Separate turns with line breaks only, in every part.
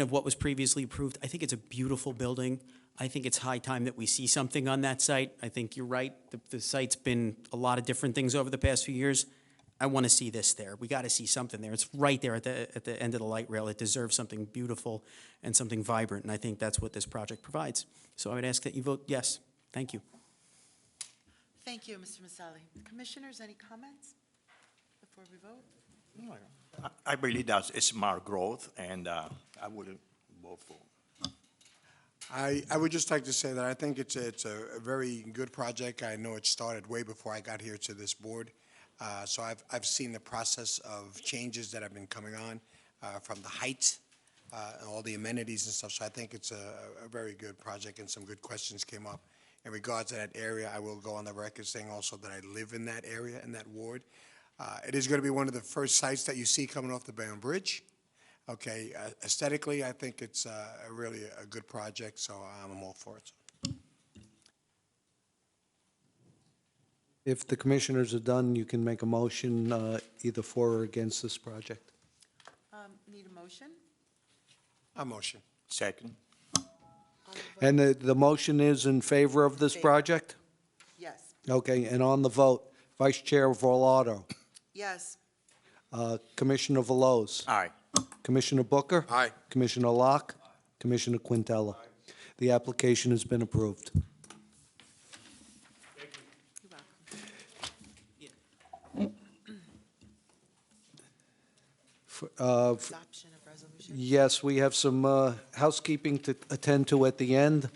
of what was previously approved. I think it's a beautiful building. I think it's high time that we see something on that site. I think you're right. The, the site's been a lot of different things over the past few years. I want to see this there. We got to see something there. It's right there at the, at the end of the light rail. It deserves something beautiful and something vibrant, and I think that's what this project provides. So I would ask that you vote yes. Thank you.
Thank you, Mr. Maselli. Commissioners, any comments before we vote?
I- I believe that it's smart growth, and uh, I would vote for.
I, I would just like to say that I think it's, a- it's a very good project. I know it started way before I got here to this board. Uh, So I've, I've seen the process of changes that have been coming on uh, from the height, uh, and all the amenities and stuff. So I think it's a, a very good project and some good questions came up. In regards to that area, I will go on the record saying also that I live in that area, in that ward. Uh, It is going to be one of the first sites that you see coming off the Bayonne Bridge. Okay, uh, aesthetically, I think it's uh, a really a good project, so I'm all for it.
If the commissioners are done, you can make a motion uh, either for or against this project.
Um, Need a motion?
I motion.
Second?
And the, the motion is in favor of this project?
Yes.
Okay, and on the vote, Vice Chair Vorlado,
Yes.
uh, Commissioner Veloz,
Aye.
Commissioner Booker?
Aye.
Commissioner Locke? Commissioner Quintella? The application has been approved.
You're welcome.
F- uh, f-
Adoption of resolution.
Yes, we have some uh, housekeeping to attend to at the end.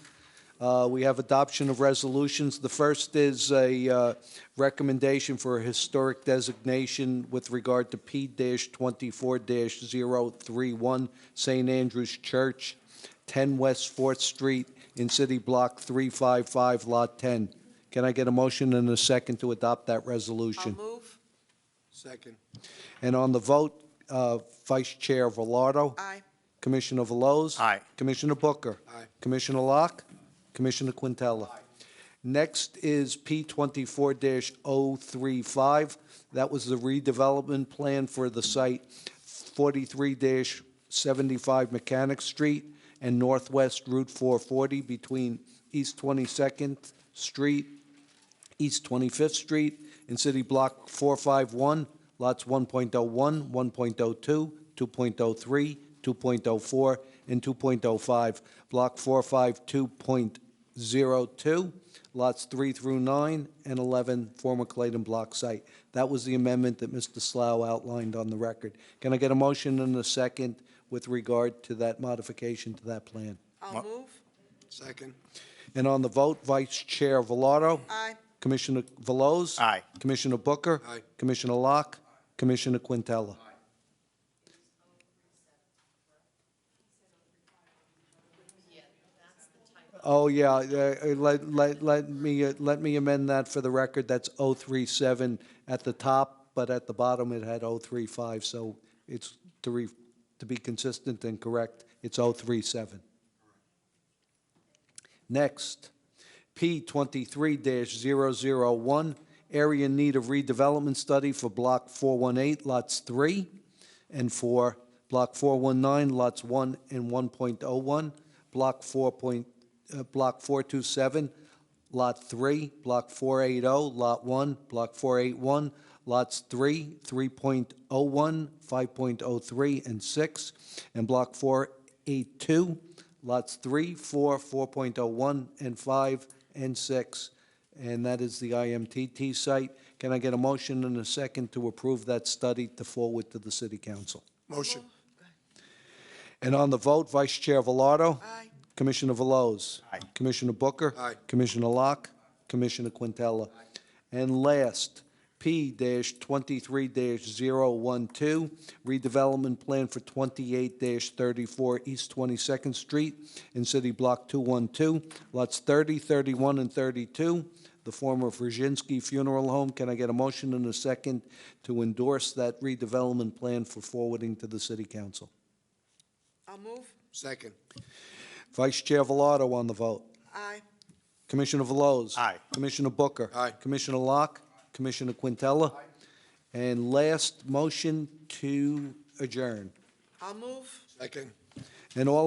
Uh, We have adoption of resolutions. The first is a uh, recommendation for a historic designation with regard to P-24-031 St. Andrew's Church, 10 West 4th Street in City Block 355, Lot 10. Can I get a motion and a second to adopt that
I'll
resolution?
move.
Second.
And on the vote, uh, Vice Chair Velardo?
Aye.
Commissioner Veloz?
Aye.
Commissioner Booker?
Aye.
Commissioner Locke? Commissioner Quintella? Next is P twenty-four 35 That was the redevelopment plan for the site forty-three seventy-five Mechanic Street and Northwest Route four forty between East Twenty-second Street East 25th Street in City Block 451, lots 1.01, 1.02, 2.03, 2.04, and 2.05, Block 452.02, lots 3 through 9 and 11, former Clayton Block site. That was the amendment that Mr. Slough outlined on the record. Can I get a motion and a second with regard to that modification to that plan?
I'll move.
Second.
And on the vote, Vice Chair Velardo?
Aye.
Commissioner Veloz?
Aye.
Commissioner Booker?
Aye.
Commissioner Locke? Commissioner Quintella? Oh, yeah, uh, uh, let, let, let me, uh, let me amend that for the record, that's 037 at the top, but at the bottom it had 035, so it's, to re, to be consistent and correct, it's 037. Next, P twenty-three one area in need of redevelopment study for block four one eight, lots three and four, block four one nine, lots one and one point oh one, block four point, uh, block four two seven, lot three, block four eight oh, lot one, block four eight one, lots three, three point oh one, five point oh three, and six, and block four eight two, lots three, four, four point oh one, and five, and six, and that is the IMTT site. Can I get a motion and a second to approve that study to forward to the city council?
Motion.
And on the vote, Vice Chair Velardo?
Aye.
Commissioner Veloz?
Aye.
Commissioner Booker?
Aye.
Commissioner Locke? Commissioner Quintella? And last, P twenty-three 12 redevelopment plan for twenty-eight thirty-four East Twenty-second Street in City Block two-one-two, lots 30, 31, and thirty-two, the former Virginsky Funeral Home. Can I get a motion and a second to endorse that redevelopment plan for forwarding to the city council?
I'll move.
Second.
Vice Chair Velardo on the vote.
Aye.
Commissioner Veloz.
Aye.
Commissioner Booker.
Aye.
Commissioner Locke. Commissioner Quintella. And last, motion to adjourn.
I'll move.
Second.
and all